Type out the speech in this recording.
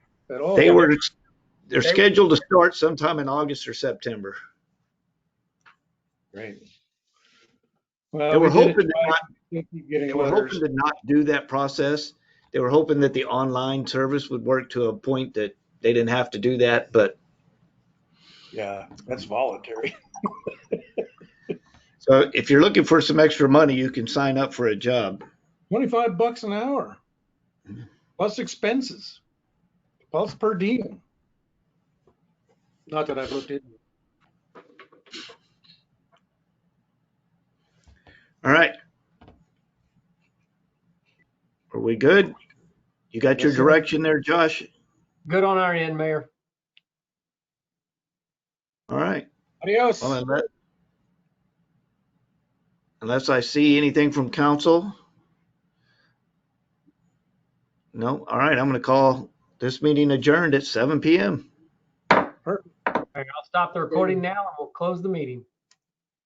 at all. They were, they're Oh, They- scheduled to start sometime in August or September. Great. They Well, Oh, were we did it hoping to twice. not, We keep they Getting were hoping letters. to not do that process. They were hoping that the online service would work to a point that they didn't have to do that, but Yeah, that's voluntary. so if you're looking for some extra money, you can sign up for a job. Twenty-five bucks an hour. Mm-hmm. Plus expenses. Plus per diem. Not that I've looked into. it. All right. Are we good? You got your Yes, sir. direction there, Josh? Good on our end, Mayor. All right. Adios. Well, unless, unless I see anything from council? No, all right, I'm gonna call this meeting adjourned at seven PM. All right, I'll stop the recording now and we'll close the meeting.